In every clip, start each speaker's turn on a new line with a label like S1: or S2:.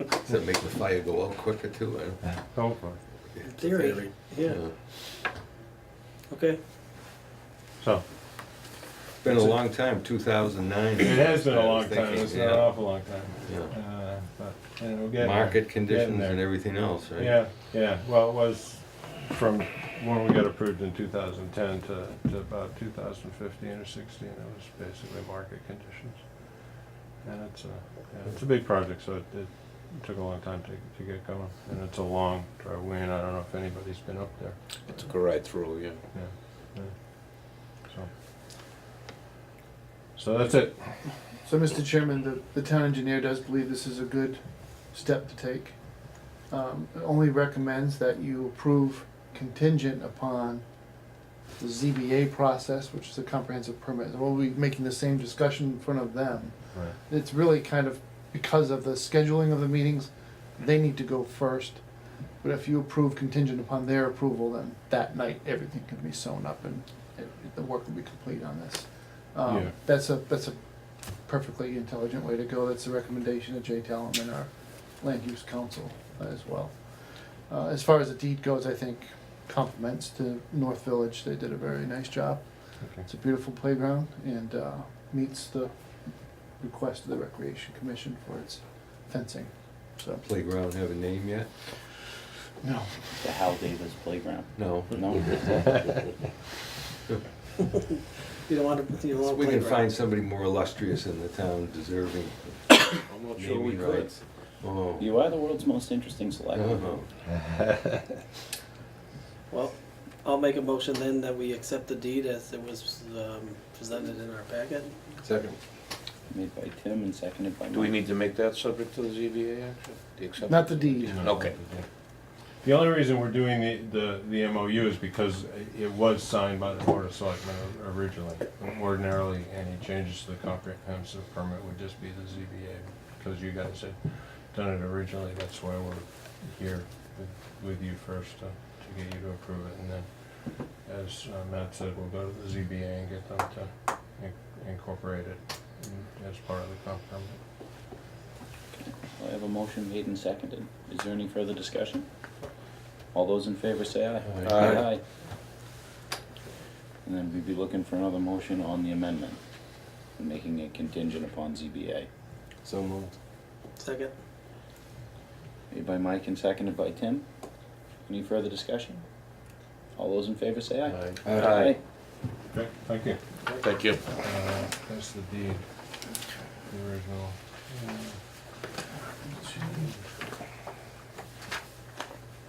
S1: Does that make the fire go out quicker too? I don't-
S2: hopefully.
S1: it's a
S3: Theory, yeah, okay.
S2: So,
S1: It's Been a long time, two thousand nine.
S2: it has been a long time, it's been an awful long time.
S1: Yeah.
S2: Uh, But, and we'll get.
S1: Market
S2: Getting
S1: conditions
S2: there.
S1: and everything else, right?
S2: Yeah, yeah, well, it was from when we got approved in two thousand ten to, to about two thousand fifteen or sixteen, it was basically market conditions. And it's a, yeah, it's a big project, so it, it took a long time to, to get going, and it's a long driveway, and I don't know if anybody's been up there,
S4: It took a ride through, yeah.
S2: yeah, yeah, so. So that's it,
S5: So, Mr. Chairman, the, the town engineer does believe this is a good step to take. Um, it only recommends that you approve contingent upon the ZBA process, which is a comprehensive permit. We'll be making the same discussion in front of them.
S2: right,
S5: It's really kind of, because of the scheduling of the meetings, they need to go first. But if you approve contingent upon their approval, then that night, everything can be sewn up and it- the work will be complete on this.
S2: Yeah.
S5: Um, that's a, that's a perfectly intelligent way to go. That's the recommendation of Jay Talon and our land use council uh, as well. Uh, as far as the deed goes, I think compliments to North Village. They did a very nice job.
S2: okay,
S5: It's a beautiful playground and uh, meets the request of the Recreation Commission for its fencing, so.
S1: Playground have a name yet?
S5: No.
S6: The Hal Davis Playground.
S1: No.
S6: No,
S3: You don't want to, you don't want
S1: We
S3: to
S1: can
S3: play
S1: find somebody more illustrious in the town deserving.
S4: I'm not
S1: sure
S4: sure
S1: we
S4: we
S1: Naming could.
S4: could.
S1: rights. Oh.
S6: you are the world's most interesting
S4: Uh-huh.
S6: selectman.
S1: Oh.
S3: Well, I'll make a motion then that we accept the deed as it was um, presented in our packet.
S1: Second.
S6: Made by Tim and seconded by Mike.
S4: Do we need to make that subject to the ZBA action? The acceptance?
S5: Not the deed.
S2: you know,
S4: Okay.
S2: The only reason we're doing the, the, the MOU is because it was signed by the Board of Selectmen originally. Ordinarily, any changes to the comprehensive permit would just be the ZBA, because you guys had done it originally, that's why we're here with- with you first, to to get you to approve it, and then, as uh, Matt said, we'll go to the ZBA and get them to in- incorporate it in- as part of the comp permit.
S6: I have a motion made and seconded. Is there any further discussion? All those in favor say aye.
S1: Aye. Aye.
S6: And then we'd be looking for another motion on the amendment, making it contingent upon ZBA.
S1: So moved.
S3: Second?
S6: Made by Mike and seconded by Tim. Any further discussion? All those in favor say aye.
S4: Aye.
S2: Okay, thank you.
S4: Thank you.
S2: Uh, That's the deed, the original.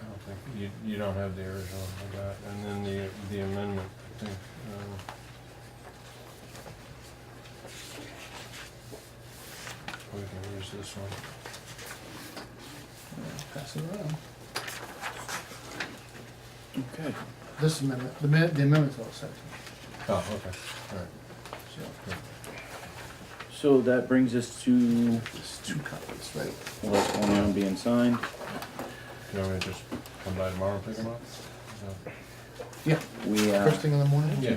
S2: I don't think, you, you don't have the original, I got, and then the, the amendment, I think. um, We can use this one.
S5: Pass it around.
S6: Okay.
S5: This amendment, the amendment, the amendment's all set,
S2: Oh, okay, all right.
S5: so
S2: good.
S6: So that brings us to
S5: there's two copies, right?
S6: what's going on being signed.
S2: Do you want me to just come by tomorrow and pick them up? Is that-
S5: Yeah,
S6: We, uh.
S5: first thing in the morning.
S2: Yeah.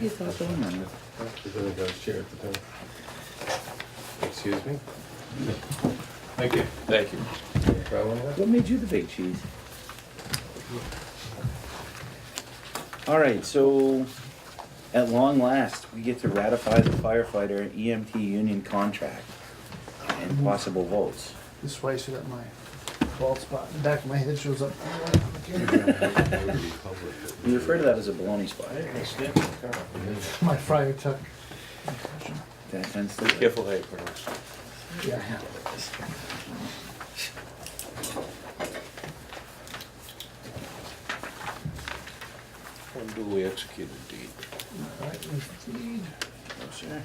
S1: chair at the time. Excuse me?
S2: Thank you.
S4: Thank you.
S6: What made you the big cheese? All right, so at long last, we get to ratify the firefighter EMT union contract and possible votes.
S5: This way, so that my bald spot in the back of my head shows up.
S6: We refer to that as a baloney spot.
S5: My fryer tuck.
S6: That tends to-
S4: Careful how you pronounce it.
S5: Yeah, I have
S4: Unduly executed deed.
S5: Oh,
S6: Sure.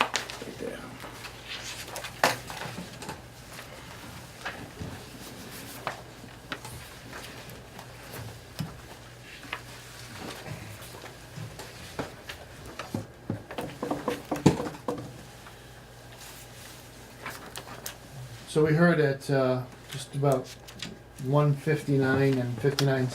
S6: Right there.
S5: So we heard at, uh, just about one fifty-nine and fifty-nine